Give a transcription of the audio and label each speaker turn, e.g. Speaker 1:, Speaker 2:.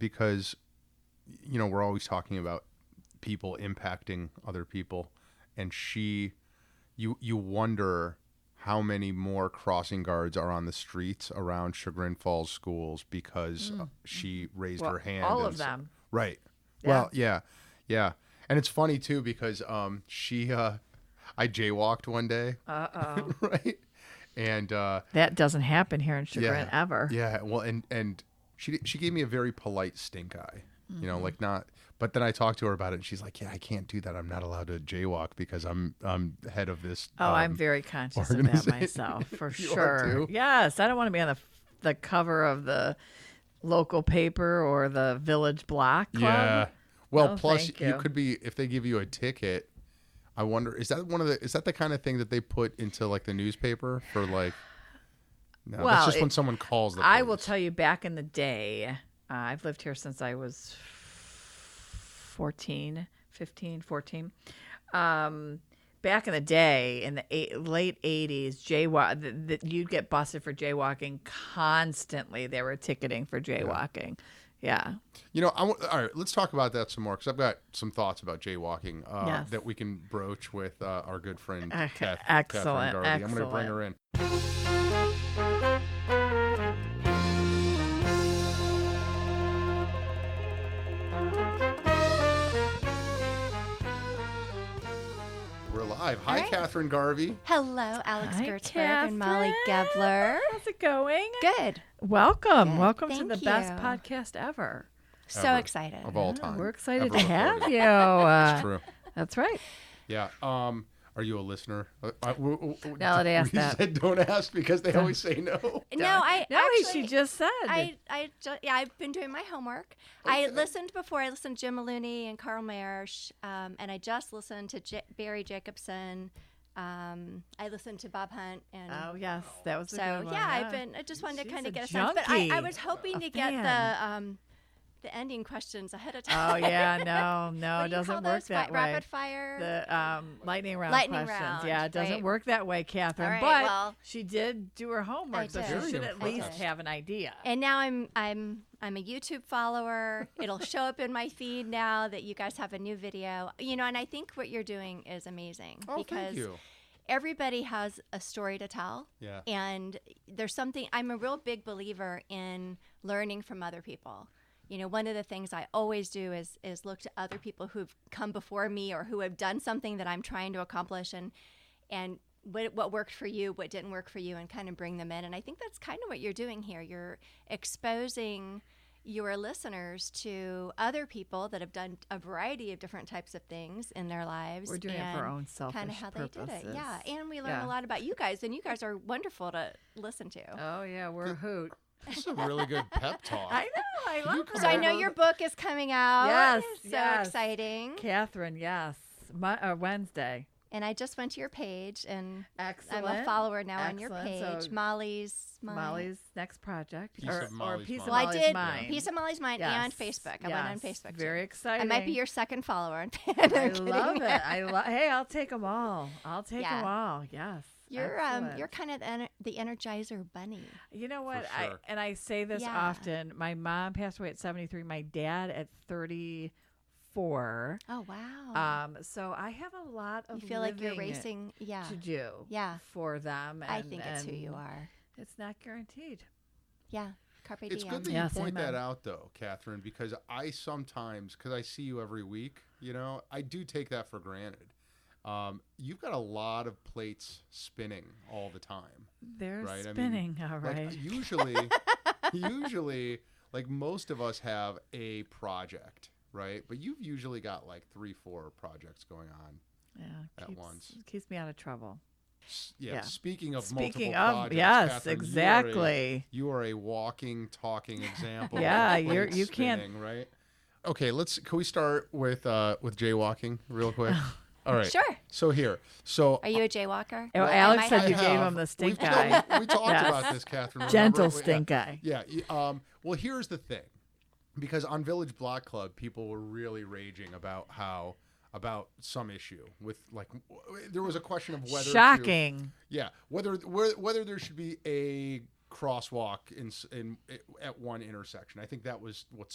Speaker 1: because you know we're always talking about people impacting other people and she you you wonder how many more crossing guards are on the streets around Chagrin Falls schools because uh, she raised
Speaker 2: Well,
Speaker 1: her hand
Speaker 2: all
Speaker 1: and
Speaker 2: of
Speaker 1: s-
Speaker 2: them.
Speaker 1: right
Speaker 2: Yeah.
Speaker 1: well yeah yeah and it's funny too because um she uh I jaywalked one day
Speaker 2: Uh oh.
Speaker 1: right and uh
Speaker 2: that doesn't happen here in Chagrin
Speaker 1: yeah.
Speaker 2: ever.
Speaker 1: Yeah, well, and and she she gave me a very polite stink eye, you
Speaker 2: Mm-hmm.
Speaker 1: know, like not. But then I talked to her about it, and she's like, "Yeah, I can't do that. I'm not allowed to jaywalk because I'm I'm head of this."
Speaker 2: Oh, I'm
Speaker 1: um,
Speaker 2: very conscious of that
Speaker 1: organization.
Speaker 2: myself for
Speaker 1: You are
Speaker 2: sure.
Speaker 1: too?
Speaker 2: Yes, I don't want to be on the the cover of the local paper or the village block club.
Speaker 1: yeah." Well,
Speaker 2: No,
Speaker 1: plus
Speaker 2: thank
Speaker 1: you.
Speaker 2: you.
Speaker 1: could be if they give you a ticket. I wonder is that one of the is that the kind of thing that they put into like the newspaper for like. No,
Speaker 2: Well,
Speaker 1: that's just when
Speaker 2: it-
Speaker 1: someone calls the.
Speaker 2: I will
Speaker 1: police.
Speaker 2: tell you back in the day, uh, I've lived here since I was 14, 15, 14. Um, back in the day, in the eight, late 80s, jaywalk, th- th- you'd get busted for jaywalking constantly. They were ticketing for jaywalking. Yeah.
Speaker 1: You know, I want, all right. Let's talk about that some more because I've got some thoughts about jaywalking uh,
Speaker 2: Yes.
Speaker 1: that we can broach with uh, our good friend
Speaker 2: Okay,
Speaker 1: Kath,
Speaker 2: excellent,
Speaker 1: Catherine Darby. I'm going to bring
Speaker 2: excellent.
Speaker 1: her in. We're live. Hi,
Speaker 3: All right.
Speaker 1: Catherine Garvey.
Speaker 3: Hello, Alex
Speaker 2: Hi,
Speaker 3: Gertzberg and Molly
Speaker 2: Catherine.
Speaker 3: Gebler.
Speaker 2: How's it going?
Speaker 3: Good.
Speaker 2: Welcome.
Speaker 3: Good.
Speaker 2: Welcome to
Speaker 3: Thank
Speaker 2: the best
Speaker 3: you.
Speaker 2: podcast ever.
Speaker 3: So
Speaker 1: Ever.
Speaker 3: excited.
Speaker 1: Of all time,
Speaker 2: We're excited
Speaker 1: ever
Speaker 2: to have
Speaker 1: recorded.
Speaker 2: you. Uh,
Speaker 1: True.
Speaker 2: that's right.
Speaker 1: Yeah. Um, are you a listener? Uh, I- w- w- w-
Speaker 2: Now they ask
Speaker 1: we
Speaker 2: that.
Speaker 1: said don't ask because they always say no. Oh,
Speaker 3: No, I
Speaker 2: No, he-
Speaker 3: actually,
Speaker 2: she just said.
Speaker 3: I, I ju- yeah, I've been doing my homework. I listened before. I listened to Jim Maloney and Carl Mayersh, um, and I just listened to J- Barry Jacobson. Um, I listened to Bob Hunt, and
Speaker 2: Oh yes, that was
Speaker 3: so
Speaker 2: a
Speaker 3: yeah,
Speaker 2: good one,
Speaker 3: I've been. I just wanted
Speaker 2: She's
Speaker 3: to kind
Speaker 2: a
Speaker 3: of get a sense, but I, I
Speaker 2: junkie.
Speaker 3: was hoping to get
Speaker 2: fan.
Speaker 3: the um, the ending questions ahead of time.
Speaker 2: Oh yeah, no, no,
Speaker 3: What
Speaker 2: it
Speaker 3: do you
Speaker 2: doesn't
Speaker 3: call
Speaker 2: work
Speaker 3: those? Fi-
Speaker 2: that way.
Speaker 3: Rapid fire.
Speaker 2: The um, lightning round
Speaker 3: Lightning
Speaker 2: questions.
Speaker 3: round,
Speaker 2: yeah, it doesn't
Speaker 3: right.
Speaker 2: work that way, Catherine.
Speaker 3: All right,
Speaker 2: but
Speaker 3: well-
Speaker 2: she did do her homework, so
Speaker 3: did.
Speaker 2: she should
Speaker 1: Very
Speaker 2: at least
Speaker 1: impressed.
Speaker 2: have an idea.
Speaker 3: And now I'm I'm I'm a YouTube follower. It'll show up in my feed now that you guys have a new video. You know, and I think what you're doing is amazing
Speaker 1: Oh,
Speaker 3: because
Speaker 1: thank you.
Speaker 3: everybody has a story to tell.
Speaker 1: Yeah.
Speaker 3: And there's something I'm a real big believer in learning from other people. You know, one of the things I always do is is look to other people who've come before me or who have done something that I'm trying to accomplish and and what, what worked for you, what didn't work for you, and kind of bring them in. And I think that's kind of what you're doing here. You're exposing your listeners to other people that have done a variety of different types of things in their lives.
Speaker 2: We're doing it for our
Speaker 3: and
Speaker 2: own selfish
Speaker 3: Kind of how they
Speaker 2: purposes.
Speaker 3: did it. Yeah. And we learn
Speaker 2: Yeah.
Speaker 3: a lot about you guys, and you guys are wonderful to listen to.
Speaker 2: Oh yeah, we're a hoot.
Speaker 1: This is a really good pep talk.
Speaker 2: I know. I love.
Speaker 3: so I know
Speaker 2: her.
Speaker 3: your book is coming out.
Speaker 2: Oh, Yes,
Speaker 3: So
Speaker 2: yes.
Speaker 3: exciting.
Speaker 2: Catherine. Yes, Mon- uh, Wednesday.
Speaker 3: And I just went to your page, and
Speaker 2: Excellent.
Speaker 3: I'm a follower now on your
Speaker 2: Excellent.
Speaker 3: page.
Speaker 2: So
Speaker 3: Molly's. mine.
Speaker 2: Molly's next project,
Speaker 1: Piece
Speaker 2: or,
Speaker 1: of
Speaker 2: or
Speaker 1: Molly's
Speaker 2: piece of
Speaker 1: Mind.
Speaker 3: Well, I
Speaker 2: Molly's
Speaker 3: did
Speaker 2: mind.
Speaker 3: piece of Molly's mind and
Speaker 2: Yes,
Speaker 3: Facebook. I went on
Speaker 2: yes.
Speaker 3: Facebook. too.
Speaker 2: Very
Speaker 3: I
Speaker 2: exciting.
Speaker 3: might be your second follower. on Facebook.
Speaker 2: I
Speaker 3: I'm kidding.
Speaker 2: love it. I love. Hey, I'll take them all. I'll take
Speaker 3: Yeah.
Speaker 2: them all. Yes.
Speaker 3: You're um,
Speaker 2: Excellent.
Speaker 3: you're kind of the, ener- the Energizer Bunny.
Speaker 2: You know what?
Speaker 1: sure.
Speaker 2: I and I say this
Speaker 3: Yeah.
Speaker 2: often. My mom passed away at 73. My dad at 34.
Speaker 3: Oh wow!
Speaker 2: Um, so I have a lot of
Speaker 3: you feel like you're
Speaker 2: living
Speaker 3: racing. Yeah,
Speaker 2: to do.
Speaker 3: Yeah.
Speaker 2: For them.
Speaker 3: I
Speaker 2: and-
Speaker 3: think it's who you
Speaker 2: and
Speaker 3: are.
Speaker 2: It's not guaranteed.
Speaker 3: Yeah, carpe
Speaker 1: It's
Speaker 3: diem.
Speaker 1: good that
Speaker 2: Yes,
Speaker 1: you point
Speaker 2: amen.
Speaker 1: that out, though, Catherine, because I sometimes, because I see you every week, you know, I do take that for granted. Um, you've got a lot of plates spinning all the time.
Speaker 2: They're
Speaker 1: Right, I mean,
Speaker 2: spinning. all
Speaker 1: Like,
Speaker 2: right.
Speaker 1: usually, usually, like most of us have a project, right? But you've usually got like three, four projects going on.
Speaker 2: yeah.
Speaker 1: uh, at
Speaker 2: keeps-
Speaker 1: once.
Speaker 2: Keeps me out of trouble.
Speaker 1: S- Yeah.
Speaker 2: Yeah.
Speaker 1: Speaking of
Speaker 2: Speaking
Speaker 1: multiple
Speaker 2: of,
Speaker 1: projects,
Speaker 2: yes,
Speaker 1: Catherine, you are a-
Speaker 2: exactly.
Speaker 1: You are a walking, talking example. of
Speaker 2: Yeah,
Speaker 1: plates
Speaker 2: you're- you can't-
Speaker 1: spinning, right. Okay, let's. Can we start with uh with jaywalking real quick? All right.
Speaker 3: Sure.
Speaker 1: So here, so
Speaker 3: Are you a jaywalker?
Speaker 2: Oh,
Speaker 3: Am
Speaker 2: Alex
Speaker 3: I-
Speaker 2: said
Speaker 1: I
Speaker 2: you gave
Speaker 1: have-
Speaker 2: him the stink
Speaker 1: we've- no,
Speaker 2: eye.
Speaker 1: we- we talked
Speaker 2: Yes.
Speaker 1: about this, Catherine. remember?
Speaker 2: Gentle
Speaker 1: We-
Speaker 2: stink
Speaker 1: yeah.
Speaker 2: eye.
Speaker 1: Yeah. y- Um. Well, here's the thing, because on Village Block Club, people were really raging about how about some issue with like w- there was a question of whether to-
Speaker 2: Shocking.
Speaker 1: yeah, whether where, whether there should be a crosswalk in s- in at one intersection. I think that was what